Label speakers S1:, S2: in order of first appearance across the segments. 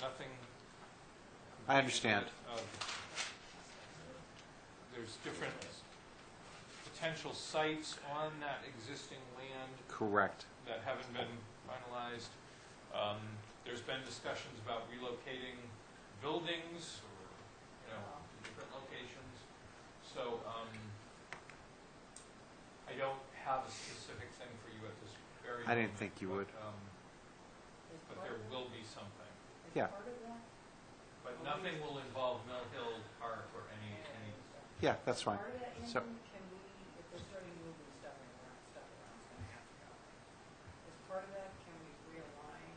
S1: nothing
S2: I understand.
S1: of, there's different potential sites on that existing land
S2: Correct.
S1: that haven't been finalized. Um, There's been discussions about relocating buildings, or, you know, to different locations. So um, I don't have a specific thing for you at this very moment.
S2: I didn't think you
S1: but,
S2: would.
S1: um, But there will be something.
S2: Yeah.
S1: But nothing will involve Mill Hill Park or any, any,
S2: Yeah, that's fine.
S3: Part of that
S2: So-
S3: income can we, if we're starting moving stuff around, stuff around, it's gonna have to go. As part of that, can we realign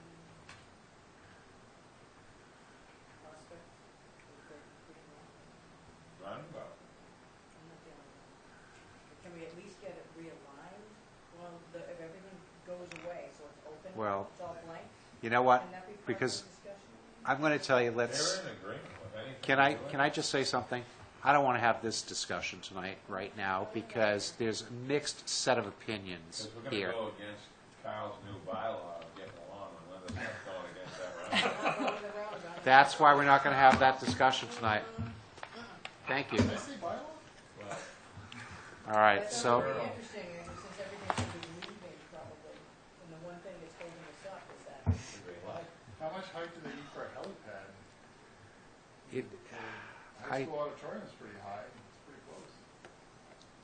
S3: prospect? with the- with the-
S4: Roundabout.
S3: I'm not feeling it. But Can we at least get it realigned? Well, the, if everything goes away, so it's open,
S2: Well-
S3: it's all blank,
S2: You know what?
S3: can that be part of the
S2: because-
S3: discussion?
S2: I'm going to tell you,
S4: They're
S2: let's,
S4: in agreement with anything.
S2: can I,
S4: we're
S2: can I just say something? I don't want to have this discussion tonight, right now, because there's a mixed set of opinions
S4: Because we're gonna
S2: here.
S4: go against Kyle's new bylaw of getting along and let us not going against that roundabout.
S2: That's why we're not going to have that discussion tonight. Thank you.
S4: Well,
S2: All right,
S3: That's
S2: so,
S3: gonna be interesting, and since everything's gonna be moving probably, and the one thing that's holding us up is that
S4: it's a great lot.
S5: How much height do they need for a helipad?
S2: it,
S5: High
S2: I,
S5: school auditorium is pretty high, it's pretty close.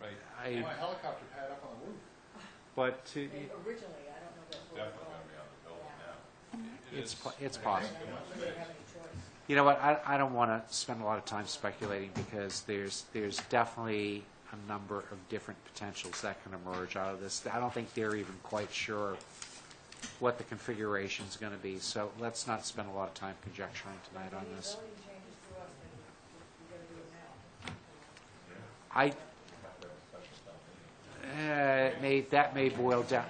S1: right,
S2: I,
S5: Want a helicopter pad up on the roof?
S2: but to,
S3: they- originally, I don't know that.
S4: It's definitely gonna be on the building now.
S1: it
S2: it's,
S1: is,
S2: po- it's
S3: I
S2: possible.
S3: don't know they have any choice.
S2: You know what, I, I don't want to spend a lot of time speculating because there's, there's definitely a number of different potentials that can emerge out of this. I don't think they're even quite sure what the configuration's going to be, so let's not spend a lot of time conjecturing tonight on this.
S3: If any zoning changes to us, then we gotta do it now.
S2: I,
S4: Have to have a special town
S2: eh,
S4: meeting.
S2: it may, that may boil down,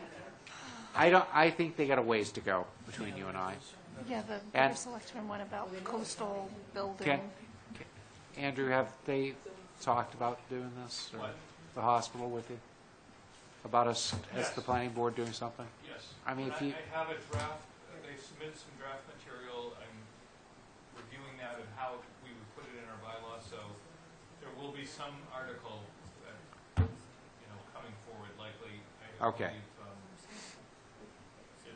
S2: I don't, I think they got a ways to go between you and I.
S6: Yeah, the
S2: And-
S6: Board of Selectmen one about coastal building.
S2: Can, Andrew, have they talked about doing this? or
S1: What?
S2: The hospital with you? About us, as the
S1: Yes.
S2: planning board doing something?
S1: yes.
S2: I mean,
S1: And
S2: if you-
S1: I have a draft, uh, they've submitted some draft material, I'm reviewing that and how we would put it in our bylaw, so there will be some article that, you know, coming forward likely. I
S2: Okay.
S1: believe, um,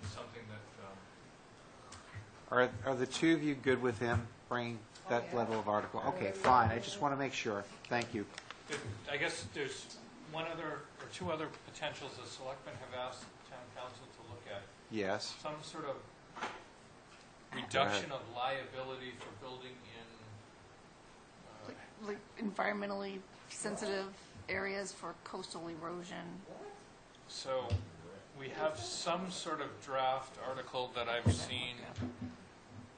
S1: It's something that, um,
S2: Are, are the two of you good with him bringing that
S3: Okay.
S2: level of article? Okay, fine, I just want to make sure. Thank you.
S1: There- I guess there's one other, or two other potentials the selectmen have asked town council to look at.
S2: Yes,
S1: Some sort of reduction of liability for building in, uh,
S6: Like- Like environmentally sensitive areas for coastal erosion.
S1: so we have some sort of draft article that I've seen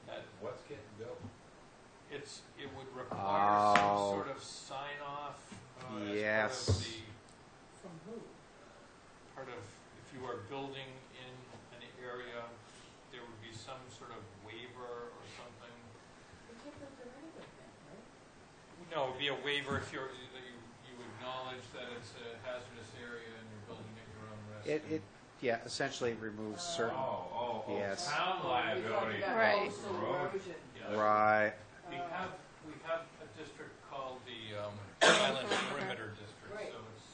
S1: that
S4: What's getting built?
S1: it's, it would require some
S2: Oh.
S1: sort of sign off uh, as
S2: Yes.
S1: part of the,
S3: From who?
S1: part of, if you are building in an area, there would be some sort of waiver or something.
S3: We can't build there anyway then, right?
S1: No, it'd be a waiver if you're, that you, you acknowledge that it's a hazardous area and you're building at your own risk.
S2: it, it, yeah, essentially removes certain,
S4: Oh, oh, oh,
S2: Yes.
S4: town liability.
S6: about Right.
S3: Coastal
S4: Road.
S3: erosion.
S1: Yeah.
S2: right,
S1: We have, we have a district called the, um, Island Perimeter District,
S3: Right.
S1: so it's,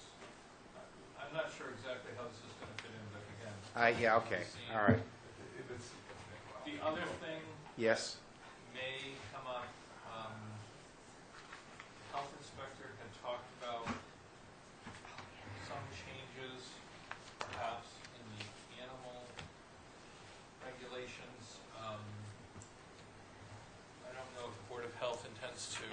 S1: I'm not sure exactly how this is gonna fit in, but again.
S2: I, yeah, okay, all right,
S4: If it's,
S1: The other thing
S2: yes,
S1: may come up, um, health inspector had talked about some changes perhaps in the animal regulations. Um, I don't know if the Board of Health intends to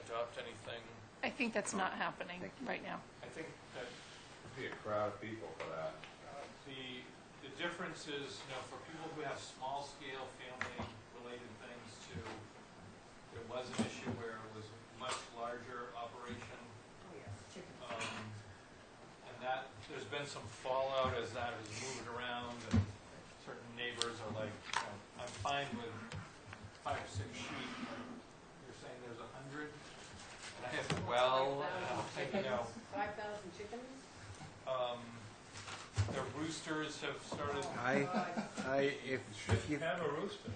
S1: adopt anything.
S6: I think that's not happening right now.
S1: I think that
S4: it'd be a crowd of people for that.
S1: The, the difference is, you know, for people who have small-scale family-related things to, there was an issue where it was a much larger operation,
S3: Oh, yes, chicken.
S1: um, and that, there's been some fallout as that was moving around, and certain neighbors are like, you know, I'm fine with five or six sheep, and you're saying there's a hundred? And I have, well, and I'm thinking, you know,
S3: Five thousand chickens?
S1: um, the roosters have started
S2: I, I, if, if you,
S4: Have a rooster.